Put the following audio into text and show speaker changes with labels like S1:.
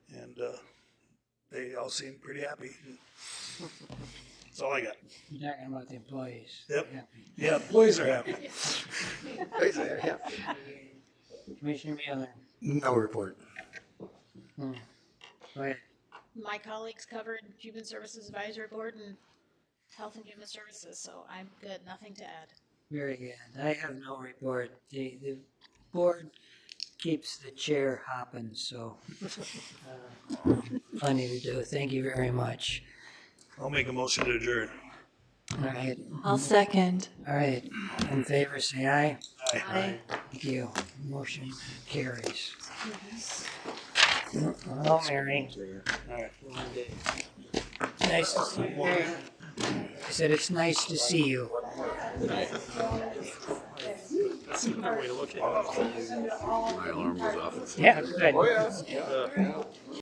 S1: uh, they all seem pretty happy. That's all I got.
S2: You're talking about the employees.
S1: Yep.
S2: Yeah.
S1: Yeah, employees are happy.
S3: Yeah.
S2: Commissioner Mueller,
S3: No report.
S2: go ahead.
S4: my colleagues covered Human Services Advisory Board and Health and Human Services, so I'm good, nothing to add.
S2: Very good. I have no report. The, the board keeps the chair hopping, so uh, plenty to do. Thank you very much.
S1: I'll make a motion to adjourn.
S2: All right,
S5: I'll second.
S2: all right. In favor, say aye.
S1: Aye.
S5: I
S2: Thank you. Motion carries. Hello, Mary.
S1: All right.
S2: Nice to see you. I said it's nice to see you.
S3: My alarm was off.
S2: Yeah, good.